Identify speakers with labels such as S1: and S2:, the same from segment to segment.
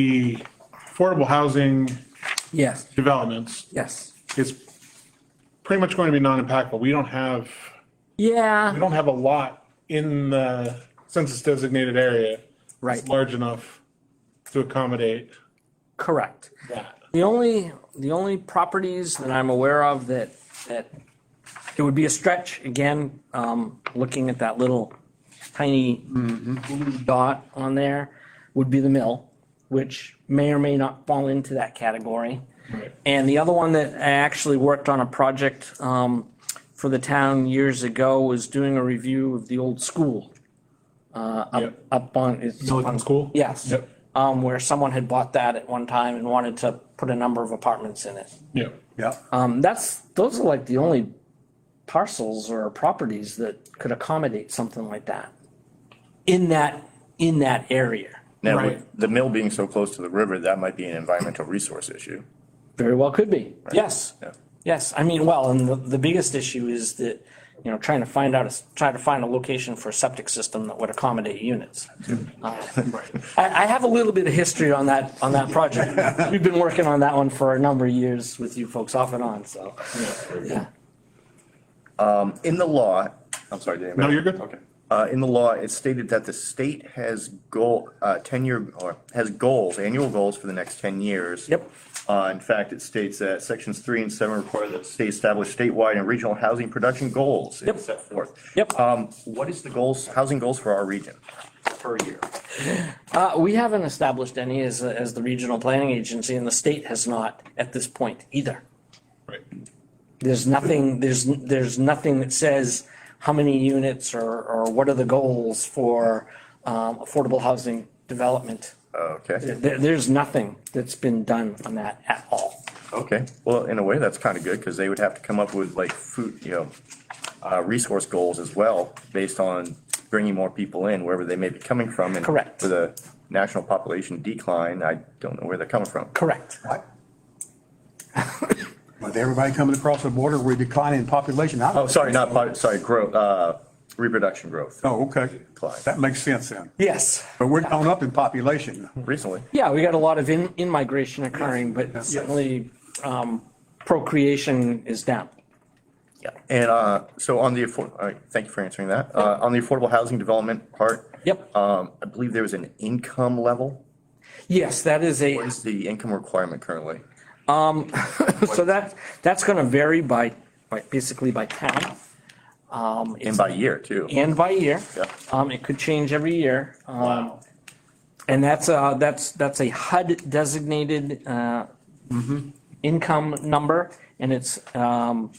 S1: the affordable housing
S2: Yes,
S1: developments
S2: yes.
S1: is pretty much going to be non-impactful. We don't have, we
S2: Yeah,
S1: don't have a lot in the census designated area.
S2: Right.
S1: that's Large enough to accommodate
S2: correct.
S1: that.
S2: The only, the only properties that I'm aware of that, that it would be a stretch, again, um, looking at that little tiny blue dot on there, would be the mill, which may or may not fall into that category.
S1: Right.
S2: And the other one that I actually worked on a project, um, for the town years ago was doing a review of the old school. Uh, up,
S1: Yep.
S2: up on, it's.
S1: Milliken School?
S2: Yes.
S1: Yep.
S2: Um, where someone had bought that at one time and wanted to put a number of apartments in it.
S1: Yeah.
S3: Yeah,
S2: Um, that's, those are like the only parcels or properties that could accommodate something like that. In that, in that area.
S4: Now,
S1: Right.
S4: with the mill being so close to the river, that might be an environmental resource issue.
S2: Very well could be. Yes.
S4: Yeah.
S2: Yes, I mean, well, and the, the biggest issue is that, you know, trying to find out, a s- try to find a location for a septic system that would accommodate units. Uh, I, I have a little bit of history on that, on that project. We've been working on that one for a number of years with you folks off and on, so. yeah.
S4: In the law, I'm sorry, did anybody?
S1: No, you're good.
S4: Okay. Uh, in the law, it's stated that the state has goal, uh, ten-year, or has goals, annual goals for the next ten years.
S2: Yep.
S4: Uh, in fact, it states that sections three and seven require that the state establish statewide and regional housing production goals. and
S2: Yep.
S4: Set forth.
S2: Yep.
S4: Um, what is the goals, housing goals for our region per year?
S2: Uh, we haven't established any as, as the regional planning agency and the state has not at this point either.
S1: Right.
S2: There's nothing, there's, there's nothing that says how many units or, or what are the goals for, um, affordable housing development.
S4: Okay,
S2: There, there's nothing that's been done on that at all.
S4: okay. Well, in a way, that's kind of good because they would have to come up with like food, you know, uh, resource goals as well, based on bringing more people in wherever they may be coming from. and
S2: Correct.
S4: With a national population decline, I don't know where they're coming from.
S2: Correct.
S3: what? With everybody coming across the border, we're declining in population. I-
S4: Oh, sorry, not, pop- sorry, growth, uh, reproduction growth
S3: Oh, okay.
S4: Decline.
S3: That makes sense then.
S2: Yes.
S3: But we're going up in population.
S4: recently.
S2: Yeah, we got a lot of in, in migration occurring, but certainly, um, procreation is down.
S4: And uh, so on the, affor- all right, thank you for answering that. Uh, On the affordable housing development part.
S2: Yep.
S4: um, I believe there was an income level.
S2: Yes, that is a.
S4: What is the income requirement currently?
S2: So that, that's gonna vary by, by, basically by town. Um,
S4: And
S2: it's-
S4: by year, too.
S2: and by year.
S4: Yeah.
S2: Um, it could change every year. Um, and that's, uh, that's, that's a HUD designated, uh, income number and it's, um,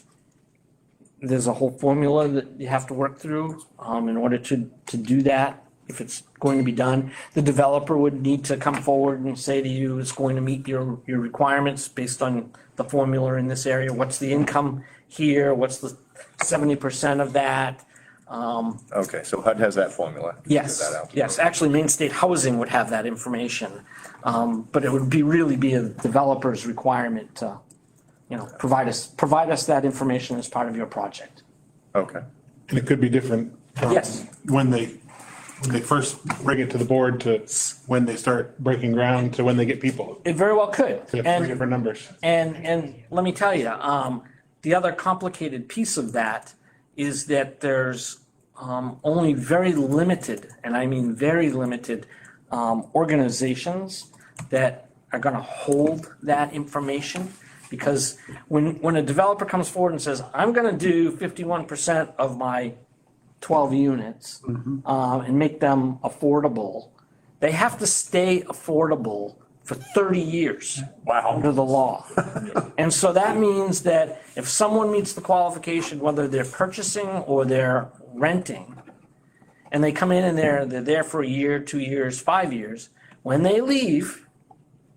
S2: there's a whole formula that you have to work through, um, in order to, to do that. If it's going to be done, the developer would need to come forward and say to you, it's going to meet your, your requirements based on the formula in this area. What's the income here? What's the seventy percent of that? Um,
S4: Okay, so HUD has that formula. Figure
S2: Yes,
S4: that out.
S2: yes, actually, Main State Housing would have that information, um, but it would be, really be a developer's requirement to, you know, provide us, provide us that information as part of your project.
S4: Okay,
S1: And it could be different. from
S2: Yes.
S1: When they, when they first bring it to the board to when they start breaking ground to when they get people.
S2: It very well could,
S1: They have three
S2: and,
S1: different numbers.
S2: and, and let me tell you, um, the other complicated piece of that is that there's, um, only very limited, and I mean very limited, um, organizations that are gonna hold that information. Because when, when a developer comes forward and says, I'm gonna do fifty-one percent of my twelve units, um, and make them affordable, they have to stay affordable for thirty years. Wow. Under the law. And so that means that if someone meets the qualification, whether they're purchasing or they're renting, and they come in and they're, they're there for a year, two years, five years, when they leave,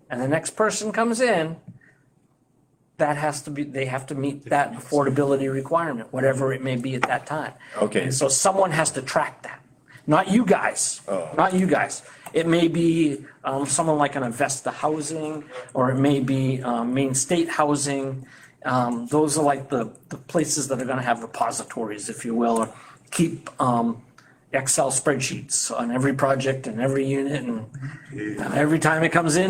S2: and the next person comes in, that has to be, they have to meet that affordability requirement, whatever it may be at that time.
S4: Okay.
S2: And so someone has to track that, not you guys, not you guys. It may be um, someone like an Avesta Housing, or it may be um, Maine State Housing. Um, Those are like the, the places that are gonna have repositories, if you will, or keep um, Excel spreadsheets on every project and every unit, and every time it comes in,